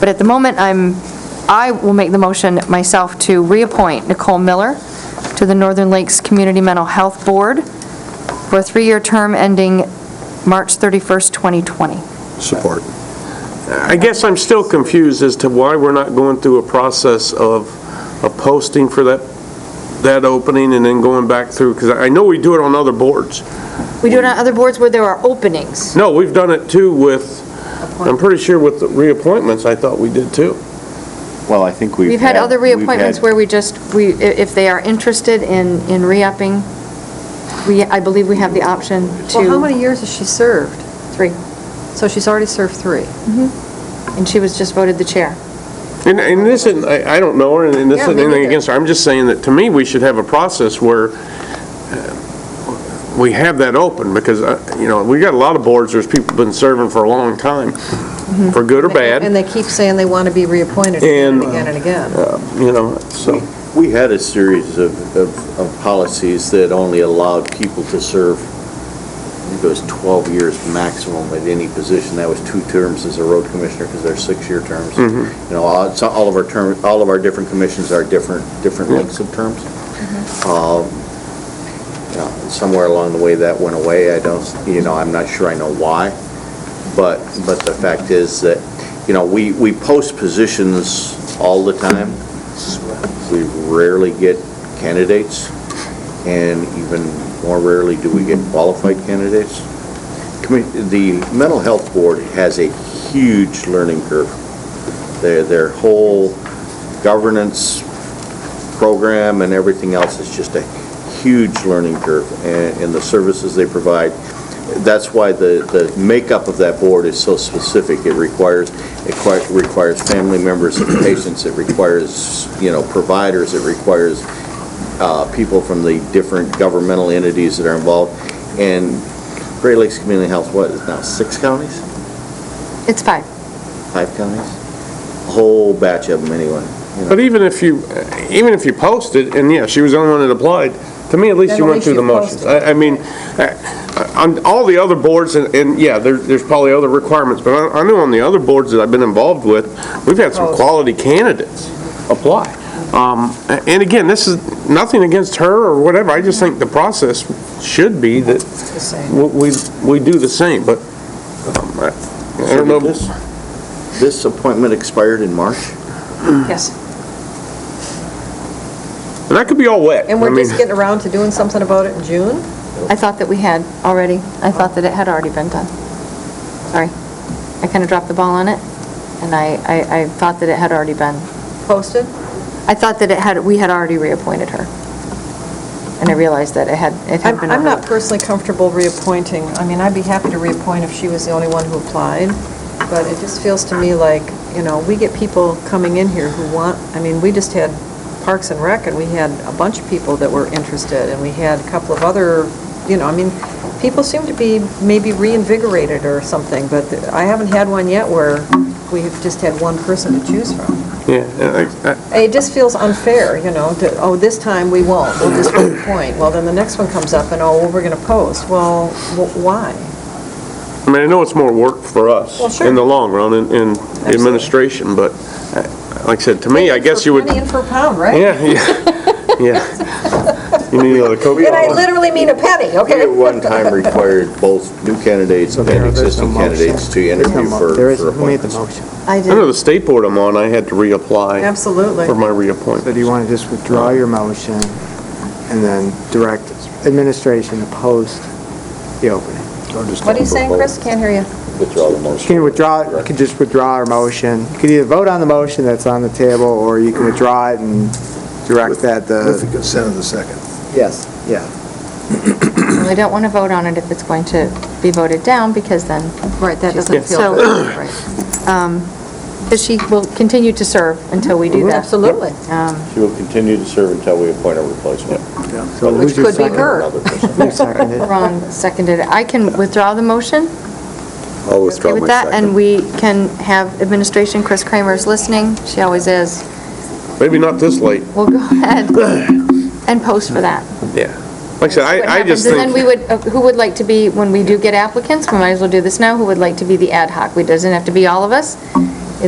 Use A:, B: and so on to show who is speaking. A: But at the moment, I'm, I will make the motion myself to reappoint Nicole Miller to the Northern Lakes Community Mental Health Board for a three-year term ending March 31st, 2020.
B: Support.
C: I guess I'm still confused as to why we're not going through a process of a posting for that, that opening and then going back through, because I know we do it on other boards.
A: We do it on other boards where there are openings.
C: No, we've done it too with, I'm pretty sure with the reappointments, I thought we did too.
B: Well, I think we've
A: We've had other
B: we've
A: reappointments
B: had-
A: where we just, we, i- if they are interested in, in re-upping, we, I believe we have the option
D: Well, how
A: to,
D: many years has she served?
A: three.
D: So she's already served three.
A: And she was just voted the chair.
C: And, and this isn't, I, I don't know her, and this
A: Yeah,
C: isn't
A: me
C: anything
A: neither.
C: against her, I'm just saying that to me, we should have a process where uh, we have that open, because, uh, you know, we got a lot of boards, there's people been serving for a long time, for good or bad.
D: And they keep saying they want to be reappointed again and
C: And-
D: again and again.
C: Uh, you know, so,
E: We had a series of, of, of policies that only allowed people to serve, I think it was 12 years maximum at any position. That was two terms as a road commissioner, because they're six-year terms. You know, all, it's all of our term, all of our different commissions are different, different lengths of terms. Um, you know, and Somewhere along the way, that went away. I don't, you know, I'm not sure I know why. But, but the fact is that, you know, we, we post positions all the time. We rarely get candidates, and even more rarely do we get qualified candidates. Commi- The Mental Health Board has a huge learning curve. Their, their whole governance program and everything else is just a huge learning curve, and, and the services they provide. That's why the, the makeup of that board is so specific. It requires, it qui- requires family members and patients, it requires, you know, providers, it requires uh, people from the different governmental entities that are involved. And Great Lakes Community Health, what is now, six counties?
A: It's five.
E: Five counties? A whole batch of them, anyway.
C: but even if you, even if you posted, and yeah, she was the only one that applied, to me, at least
D: Then
C: you
D: at
C: went
D: least
C: through the
D: you
C: motions.
D: posted.
C: I, I mean, I- on all the other boards, and, and yeah, there, there's probably other requirements, but I, I know on the other boards that I've been involved with, we've had some
D: Post.
C: quality candidates apply. Um, a- and again, this is nothing against her or whatever, I just think the process should be that
D: It's the same.
C: we, we- we do the same, but, um, I I don't know.
E: This- This appointment expired in March?
D: Yes.
C: And that could be all wet.
D: And
C: I
D: we're
C: mean-
D: just getting around to doing something about it in June?
A: I thought that we had already. I thought that it had already been done. Sorry. I kind of dropped the ball on it, and I, I, I thought that it had already been.
D: Posted?
A: I thought that it had, we had already reappointed her. And I realized that it had, it had
D: I'm,
A: been.
D: I'm not
A: revoked.
D: personally comfortable reappointing. I mean, I'd be happy to reappoint if she was the only one who applied, but it just feels to me like, you know, we get people coming in here who want, I mean, we just had Parks and Rec, and we had a bunch of people that were interested, and we had a couple of other, you know, I mean, people seem to be maybe reinvigorated or something, but I haven't had one yet where we've just had one person to choose from.
C: Yeah, and I- I-
D: It just feels unfair, you know, to, oh, this time we won't, we'll just point. Well, then the next one comes up and, oh, well, we're going to post. Well, wh- why?
C: I mean, I know it's more work for
D: Well,
C: us
D: sure.
C: in the long run in- in administration, but uh, like I said, to me, I guess you would.
D: Penny in per pound, right?
C: Yeah, yeah, yeah. You need another Coke?
D: And I literally mean a penny,
E: We
D: okay?
E: at one time required both new candidates and existing candidates to interview for
F: There is,
E: for
F: who made the
E: appointments.
F: motion?
A: I
C: I know
A: did.
C: the state board I'm on, I had to reapply
D: Absolutely.
C: for my
F: So
C: reappointment.
F: do you want to just withdraw your motion and then direct administration to post the opening?
D: What are you saying, Chris? Can't hear you.
E: Withdraw the
F: You
E: motion.
F: can withdraw, you can just withdraw our motion. You could either vote on the motion that's on the table, or you can withdraw it and direct that uh,
B: With
F: the...
B: the consent of the second.
F: Yes. Yeah.
A: I don't want to vote on it if it's going to be voted down, because then.
D: Right, that doesn't
A: feel
D: feel
A: good.
D: right.
A: Because she will continue to serve until we do that.
D: Absolutely.
A: Um,
E: She will continue to serve until we appoint a replacement.
F: So
E: But
F: who's
D: Which
F: your
D: could be
F: second?
D: her.
E: Another person.
F: Who seconded it?
A: Ron seconded it. I can withdraw the motion.
E: I'll
A: Okay with that, and we can have administration, Chris Kramer's listening, she always is.
C: Maybe not this late,
A: We'll go ahead and post for that.
C: yeah. Like I said,
A: What
C: I, I
A: happens,
C: just
A: And then we
C: think,
A: would, uh, who would like to be, when we do get applicants, we might as well do this now, who would like to be the ad hoc? It doesn't have to be all of us,